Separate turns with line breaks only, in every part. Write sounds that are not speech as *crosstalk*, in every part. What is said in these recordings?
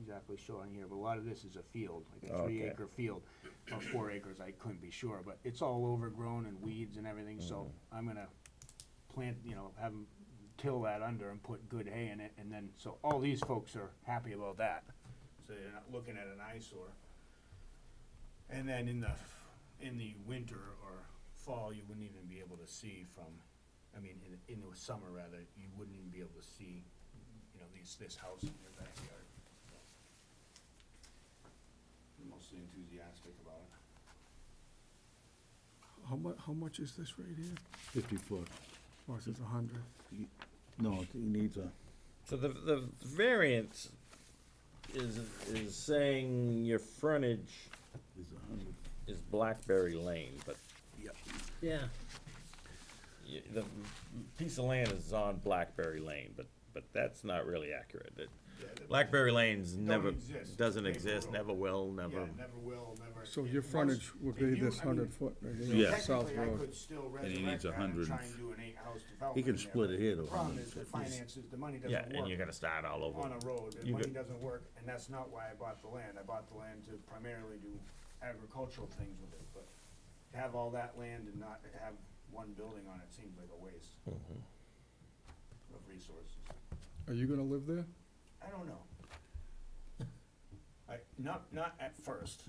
exactly sure on here, but a lot of this is a field, like a
Okay.
three acre field, or four acres, I couldn't be sure, but it's all overgrown and weeds and everything, so I'm gonna plant, you know, have them till that under and put good hay in it, and then, so all these folks are happy about that, so they're not looking at an eyesore. And then in the, in the winter or fall, you wouldn't even be able to see from, I mean, in, in the summer rather, you wouldn't even be able to see, you know, these, this house in your backyard. I'm Mostly enthusiastic about it.
How mu, how much is this right here?
fifty foot.
Or is this a hundred?
No, he needs a,
So the, the variance is, is saying your frontage
is a hundred.
is Blackberry Lane, but
Yeah.
y- the piece of land is on Blackberry Lane, but, but that's not really accurate. It- Blackberry Lane's never,
exist.
doesn't
Paper
exist,
road.
never will, never.
never will, never.
So your frontage would
If you-
be this
I mean,
hundred foot right
So
here,
Yeah.
on South
Technically, I
Road.
could still
he
resurrect
needs a
that and
hundred
try
and
and do an eight-house development.
can
there,
split
but
it here to
The problem is the
150.
finances, the money
Yeah,
doesn't
and you're
work
gonna start all over.
on a road, the
You
money
could-
doesn't work, and that's not why I bought the land, I bought the land to primarily do agricultural things with it, but to have all that land and not have one building on it seems like a waste of resources.
Are you gonna live there?
I don't know. I, not, not at first,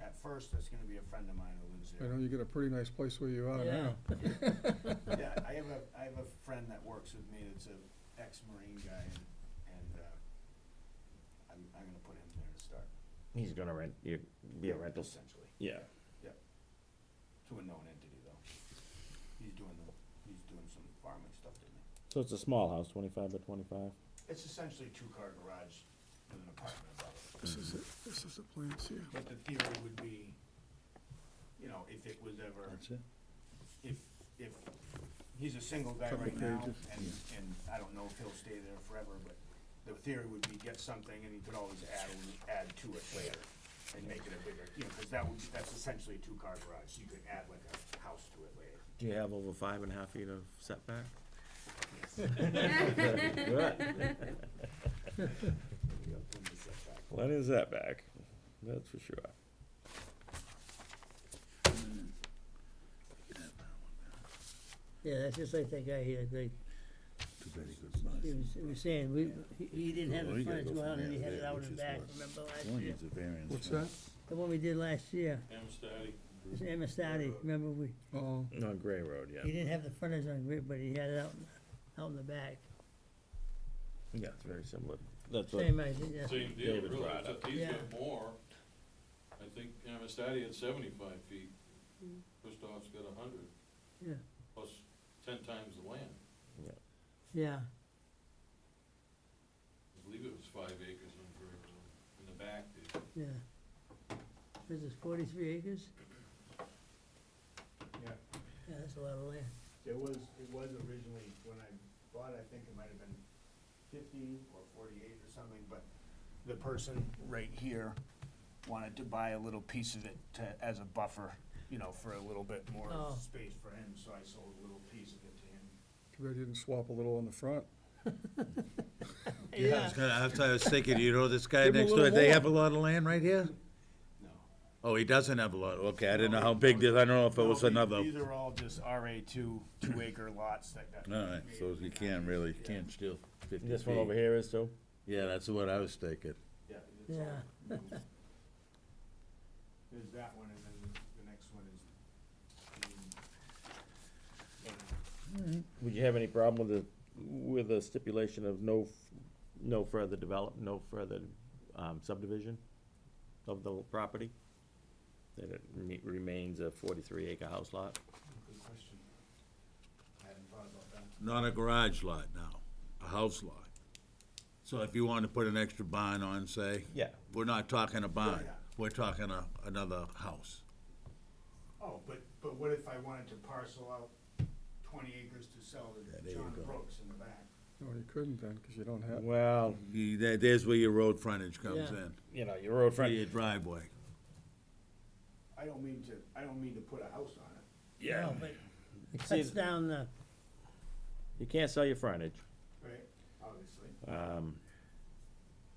at first, that's gonna be a friend of mine who lives
I
there.
know you get a pretty nice place where you are
Yeah.
now.
Yeah, I have a, I have a friend that works with me that's a ex-marine guy and, and, uh, I'm, I'm gonna put him there to start.
He's gonna rent, you, be a rental. s-
Essentially,
Yeah.
to a known entity though. He's doing the, he's doing some farming stuff to me.
So it's a small house, twenty-five by twenty-five?
It's essentially a two-car garage with an apartment above it.
*laughs* This is it, this is the plans here.
But the theory would be, you know, if it was ever.
That's it?
if, if, he's a single guy
Couple
right now,
pages.
and, and I don't know if he'll stay there forever, but the theory would be get something and he could always add, add to it later and make it a bigger, you know, cause that would, that's essentially a two-car garage, you could add like a house to it later.
Do you have over five and a half feet of *laughs* setback?
You got plenty of setback.
Plenty of setback, that's for sure.
Yeah, that's just like that guy here, Greg.
Too bad he couldn't buy
He
it.
was, he was saying, we, he, he didn't have
Well, you
the
gotta
frontage
go
well,
from
and he
there
had
to
it
there,
out
which
and
is
back,
what-
remember last
One
year?
needs a variance.
What's
right?
that?
The one we did last year, it was Amistadi, remember we,
Oh,
On Gray Road,
he
yeah.
didn't have the frontage on Grid, but he had it out, out in the back.
Yeah, it's very similar. That's what,
Same idea, yeah.
Same deal,
David
really,
brought
except
up.
he's got
Yeah.
more. I think Amistadi had seventy-five feet, Christoph's got a hundred,
yeah,
plus ten times the land.
yeah,
I believe it was five acres on Prairie Hill, in the back there.
yeah. This is forty-three acres,
Yeah,
yeah, that's a lot of land,
it was, it was originally, when I bought, it, I think it might have been fifty or forty-eight or something, but the person right here wanted to buy a little piece of it to, as a buffer, you know, for a little bit more
Oh.
space for him, so I sold a little piece of it to him.
too bad you didn't swap a little on the front.
Yeah, I
yeah,
was gonna, that's what I was thinking, you know, this guy
Give him a
next door,
little
they
more.
have a lot of land right here?
No.
Oh, he doesn't have a lot, okay, I didn't know how big this, I don't know if it was
No, the-
another.
These are all just RA two, two acre lots that got.
Alright, so you can't really, you can't steal fifty feet.
this one over here is too?
Yeah, that's what I was thinking.
Yeah. it's all-
yeah,
*laughs* There's that one, and then the next one is. um,
Would you have any problem with the, with a stipulation of no, f- no further develop, no further um, subdivision of the property? That it re- remains a forty-three acre house lot?
Good question. I hadn't thought about that.
Not a garage lot now, a house lot. So if you wanna put an extra barn on, say.
Yeah.
We're not talking a barn,
yeah.
we're talking a, another house.
Oh, but, but what if I wanted to parcel out twenty acres to sell
Yeah, there
to
you
John
go.
Brooks in the back?
No, you couldn't then, because you don't have,
Well,
You- there- There's where your road frontage comes
Yeah.
in,
you know, your road
for
front,
your driveway.
I don't mean to, I don't mean to put a house on it.
yeah,
no, but it
See,
cuts down the,
you can't sell your frontage.
Right. Obviously.
Um,